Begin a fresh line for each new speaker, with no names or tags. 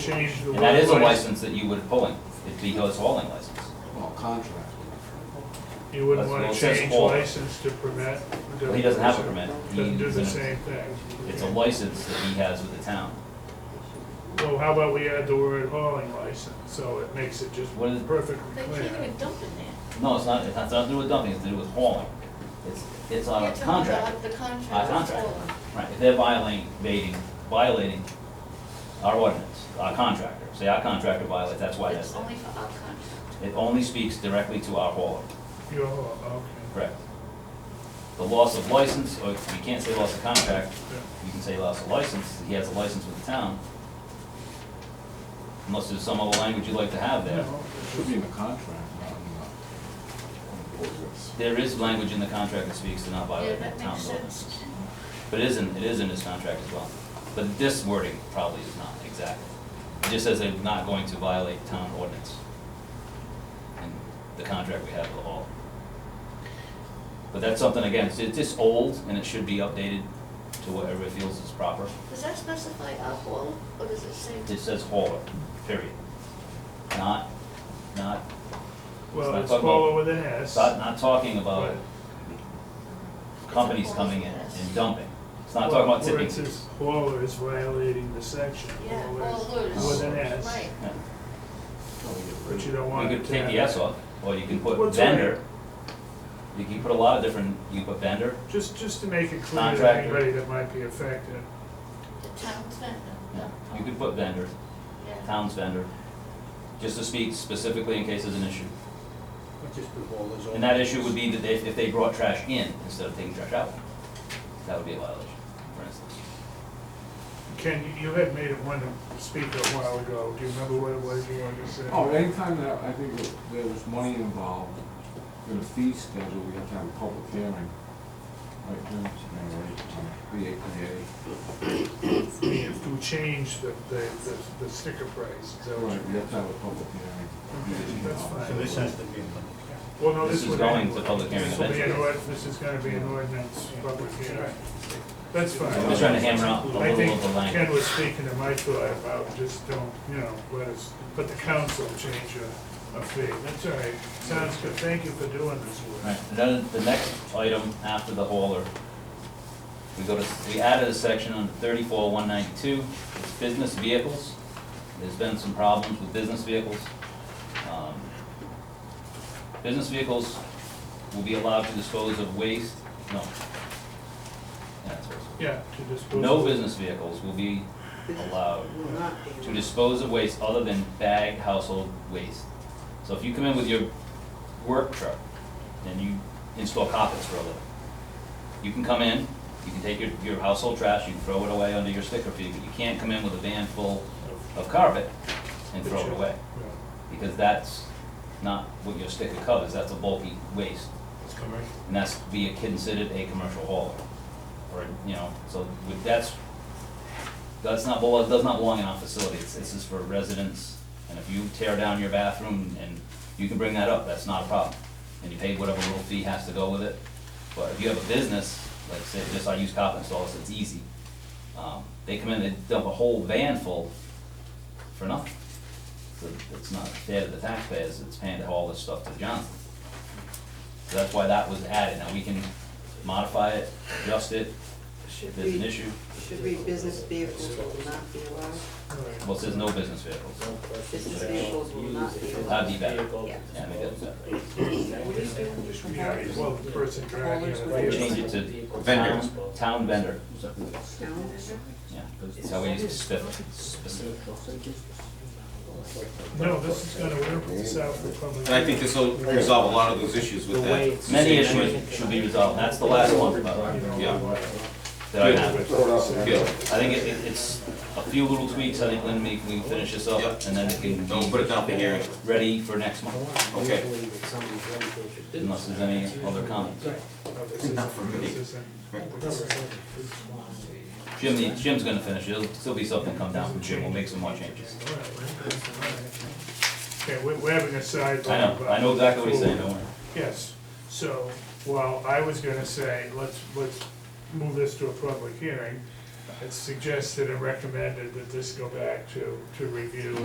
change the
And that is a
roadway,
license that you would pull in, it'd be his hauling license.
Well, contract.
you wouldn't
That's
wanna
what it says
change
all.
license to permit.
Well, he doesn't have a permit.
Doesn't do
He's
the
in a-
same thing.
It's a license that he has with the town.
Well, how about we add the word hauling license, so it makes it just
What is-
perfectly
They
clear.
can't even dump in there.
No, it's not, it's not, it's not to do with dumping, it's to do with hauling. It's, it's on a
You're talking about
Uh, contract,
The contract.
on a contract. Right, if they're violating, violating, violating our ordinance, our contractor, say our contractor violates, that's why that's
It's
there.
only for our contract.
It only speaks directly to our hauler,
You're, haul- okay.
correct? The loss of license, or you can't say loss of contract, you can say loss of license, he has a license with the town. Unless there's some other language you'd like to have there.
No,
It should be in the contract, not in the, on the ordinance.
There is language in the contract that speaks to not
Yeah,
violating
that
town
makes
ordinances.
sense.
But it isn't, it is in this contract as well. But this wording probably is not exact. It just says they're not going to violate town ordinance. And the contract we have with all. But that's something, again, it's, it's just old and it should be updated to whatever it feels is proper.
Does that specify alcohol, or does it say?
It says hauler, period. Not, not,
Well,
not
it's
talking
all
about-
over the S.
not, not talking about
Right.
companies coming in and dumping. It's not talking about
Where
tipping.
it says hauler is violating the section.
Yeah,
Hauler's
haulers.
With an S.
Right.
Yeah.
But you don't
You
want it
could
to have.
take the S off, or you can put
What's on it?
vendor. You can put a lot of different, you can put vendor,
Just, just to make it clear to
Contractor.
anybody that might be affected.
The town's
yeah,
vendor.
you could put vendor,
Yeah.
town's vendor, just to speak specifically in case there's an issue.
But just put all those.
And that issue would be that if, if they brought trash in instead of taking trash out, that would be a violation, for instance.
Ken, you- you had made it one speaker a while ago. Do you remember what it was you wanted to say?
Oh, anytime that, I think that there was money involved, in a fee schedule, we have to have a public hearing. Right, Jim? Yeah, right, on The APA.
I mean, If we change the, the, the- the sticker price, is that what
Right,
you-
we have to have a public hearing.
Okay, that's fine.
So this has to be. a public
Well, no,
This
this
is
would.
going
be-
to public hearing
This will be an
eventually.
ord, this is gonna be an ordinance, public hearing. That's fine.
I'm just trying to hammer out a
I
little
think
of the
Ken
language.
was speaking to my thought about just don't, you know, let us, but the council change a, a fee. That's all right. Sounds good. Thank you for doing this work.
Right, and then the next item after the hauler, we go to, we added a section under thirty-four one ninety-two, it's business vehicles. There's been some problems with business vehicles. Um, Business vehicles will be allowed to dispose of waste, no. Yeah, that's what it's-
Yeah, to dispose.
No
of-
business vehicles will be allowed to dispose of waste other than bagged household waste. So if you come in with your work truck and you install carpets for a living, you can come in, you can take your, your household trash, you can throw it away under your sticker fee, but you can't come in with a van full of carpet and throw it away.
Yeah.
Because that's not what your sticker covers, that's a bulky waste.
It's commercial.
And that's be considered a commercial hauler, or, you know, so with, that's, that's not, belo- does not belong in our facility, It's- this is for residents. And if you tear down your bathroom, and you can bring that up, that's not a problem, and you pay whatever little fee has to go with it. But if you have a business, like say, just I use cop installs, it's easy. Um, They come in, they dump a whole van full for nothing. So It's not fair to the taxpayers, it's paying to haul this stuff to Johnson. So that's why that was added. Now, we can modify it, adjust it, if
Should
there's an
be,
issue.
should be business vehicles will not be allowed.
All right.
Well, it says no business vehicles.
Business vehicles will not be allowed.
That'd be better.
Yeah.
Yeah, maybe that's better.
Yeah, well, the person driving it.
We'll Change it to town, town vendor.
Town vendor?
Yeah, that's how we use specific, specific.
No, this is gonna work itself for public.
And I think this will resolve a lot of those issues with that.
Many issues should be resolved. That's the last one, by the way,
hearing, you know,
Yeah.
why-
that I have.
Yeah,
I think it, it- it's a few little tweaks. I think, Lynn, we we can finish this up,
Yep.
and then it can
don't put
be
it down for hearing.
ready for next month,
Okay.
unless there's any other comments.
no, this isn't- this isn't-
Jim, the- Jim's gonna finish. There'll still be something come down from Jim. We'll make some more changes.
Okay, we're, we're having a side.
I know, I know exactly what he's saying, don't worry.
Yes, so, while I was gonna say, let's, let's move this to a public hearing, had suggested and recommended that this go back to, to review